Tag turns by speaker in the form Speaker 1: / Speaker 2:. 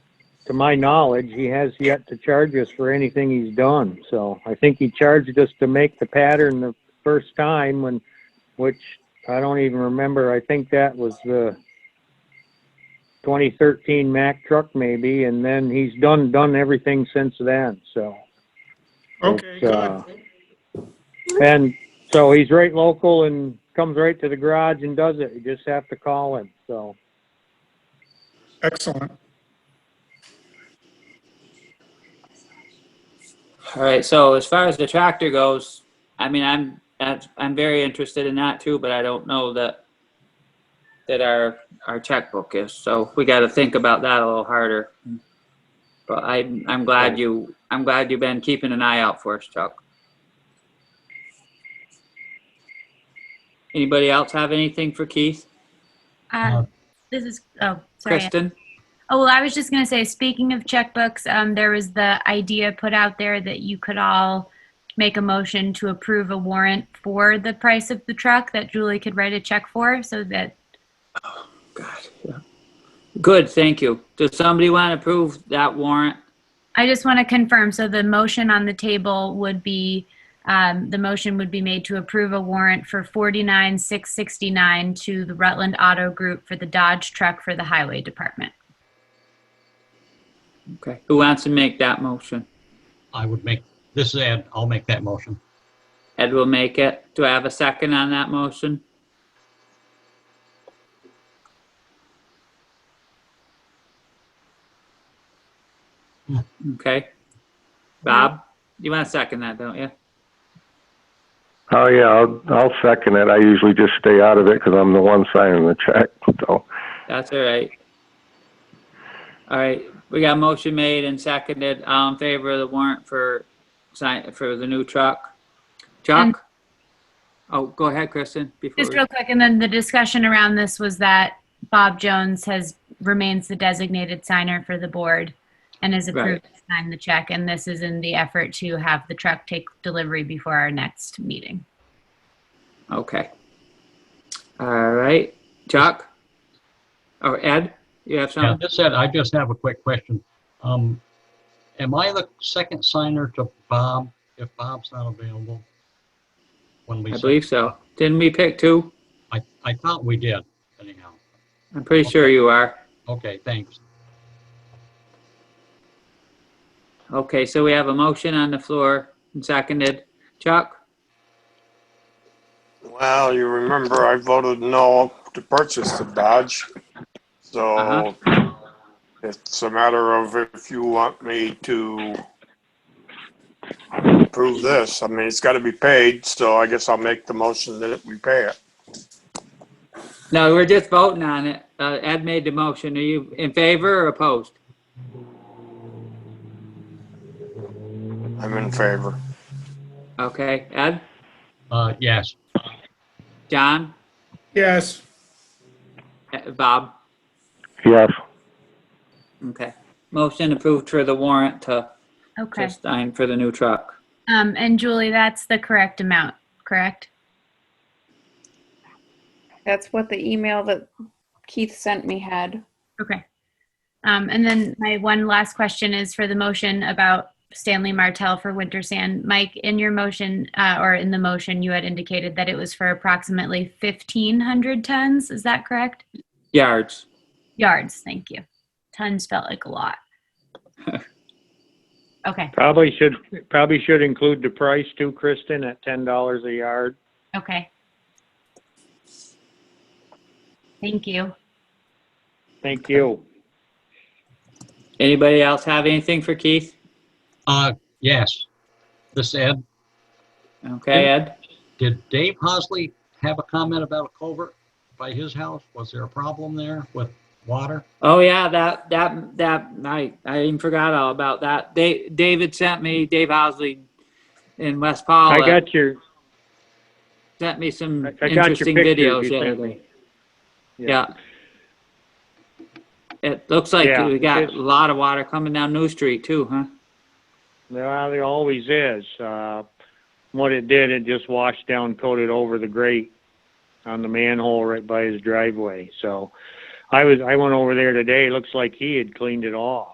Speaker 1: to my knowledge, he has yet to charge us for anything he's done. So I think he charged us to make the pattern the first time when, which I don't even remember. I think that was the 2013 Mack truck maybe, and then he's done, done everything since then, so.
Speaker 2: Okay,
Speaker 1: It's,
Speaker 2: good.
Speaker 1: uh, And so he's right local and comes right to the garage and does it. You just have to call him, so.
Speaker 2: Excellent.
Speaker 3: All right, so as far as the tractor goes, I mean, I'm, that's- I'm very interested in that too, but I don't know that, that our, our checkbook is, so we gotta think about that a little harder. But I, I'm glad you, I'm glad you've been keeping an eye out for us, Chuck. Anybody else have anything for Keith?
Speaker 4: Uh, This is, oh, sorry.
Speaker 3: Kristen?
Speaker 4: Oh, well, I was just going to say, speaking of checkbooks, um, there was the idea put out there that you could all make a motion to approve a warrant for the price of the truck that Julie could write a check for so that,
Speaker 3: God, yeah. Good, thank you. Does somebody want to approve that warrant?
Speaker 4: I just want to confirm. So the motion on the table would be, um, the motion would be made to approve a warrant for 49,669 to the Rutland Auto Group for the Dodge truck for the Highway Department.
Speaker 3: Okay, who wants to make that motion?
Speaker 5: I would make, this is Ed, I'll make that motion.
Speaker 3: Ed will make it. Do I have a second on that motion? Okay. Bob, you want to second that, don't you?
Speaker 6: Oh, yeah, I'll, I'll second it. I usually just stay out of it because I'm the one signing the check, so.
Speaker 3: That's all right. All right, we got a motion made and seconded. All in favor of the warrant for sign, for the new truck?
Speaker 4: And-
Speaker 3: Chuck? Oh, go ahead, Kristen. before
Speaker 4: Just
Speaker 3: we-
Speaker 4: real quick, and then the discussion around this was that Bob Jones has, remains the designated signer for the board and has approved to sign the check, and this is in the effort to have the truck take delivery before our next meeting.
Speaker 3: Okay. All right, Chuck? Or Ed, you have
Speaker 5: Yeah,
Speaker 3: something?
Speaker 5: this Ed, I just have a quick question. Um, am I the second signer to Bob if Bob's not available? When we,
Speaker 3: I
Speaker 5: sign-
Speaker 3: believe so. Didn't we pick two?
Speaker 5: I, I thought we did anyhow.
Speaker 3: I'm pretty sure you are.
Speaker 5: Okay, thanks.
Speaker 3: Okay, so we have a motion on the floor and seconded. Chuck?
Speaker 7: Well, you remember I voted no to purchase the Dodge. So it's a matter of if you want me to approve this. I mean, it's got to be paid, so I guess I'll make the motion that we pay it.
Speaker 3: No, we're just voting on it. Uh, Ed made the motion. Are you in favor or opposed?
Speaker 7: I'm in favor.
Speaker 3: Okay, Ed?
Speaker 5: Uh, yes,
Speaker 3: John?
Speaker 2: Yes,
Speaker 3: Eh, Bob?
Speaker 6: Yes,
Speaker 3: Okay. Motion approved for the warrant to
Speaker 4: Okay,
Speaker 3: to sign for the new truck.
Speaker 4: um, and Julie, that's the correct amount, correct?
Speaker 8: That's what the email that Keith sent me had.
Speaker 4: Okay. Um, and then my one last question is for the motion about Stanley Martell for winter sand. Mike, in your motion, uh, or in the motion, you had indicated that it was for approximately 1,500 tons. Is that correct?
Speaker 3: Yards.
Speaker 4: Yards, thank you. Tons felt like a lot. Okay,
Speaker 1: Probably should, probably should include the price too, Kristen, at ten dollars a yard.
Speaker 4: okay. Thank you.
Speaker 1: Thank you.
Speaker 3: Anybody else have anything for Keith?
Speaker 5: uh, yes. This Ed,
Speaker 3: Okay, Ed?
Speaker 5: did Dave Hosley have a comment about a culvert by his house? Was there a problem there with water?
Speaker 3: Oh yeah, that that that I I even forgot all about that. They David sent me Dave Housley in West Paula
Speaker 1: I got your,
Speaker 3: sent me some
Speaker 1: I I got your
Speaker 3: interesting
Speaker 1: pictures
Speaker 3: videos
Speaker 1: you sent
Speaker 3: lately.
Speaker 1: me.
Speaker 3: Yeah. It looks like
Speaker 1: Yeah,
Speaker 3: we got
Speaker 1: it's-
Speaker 3: a lot of water coming down New Street too, huh?
Speaker 1: Well, it always is. Uh, what it did, it just washed down, coated over the grate on the manhole right by his driveway. So I was, I went over there today. Looks like he had cleaned it off.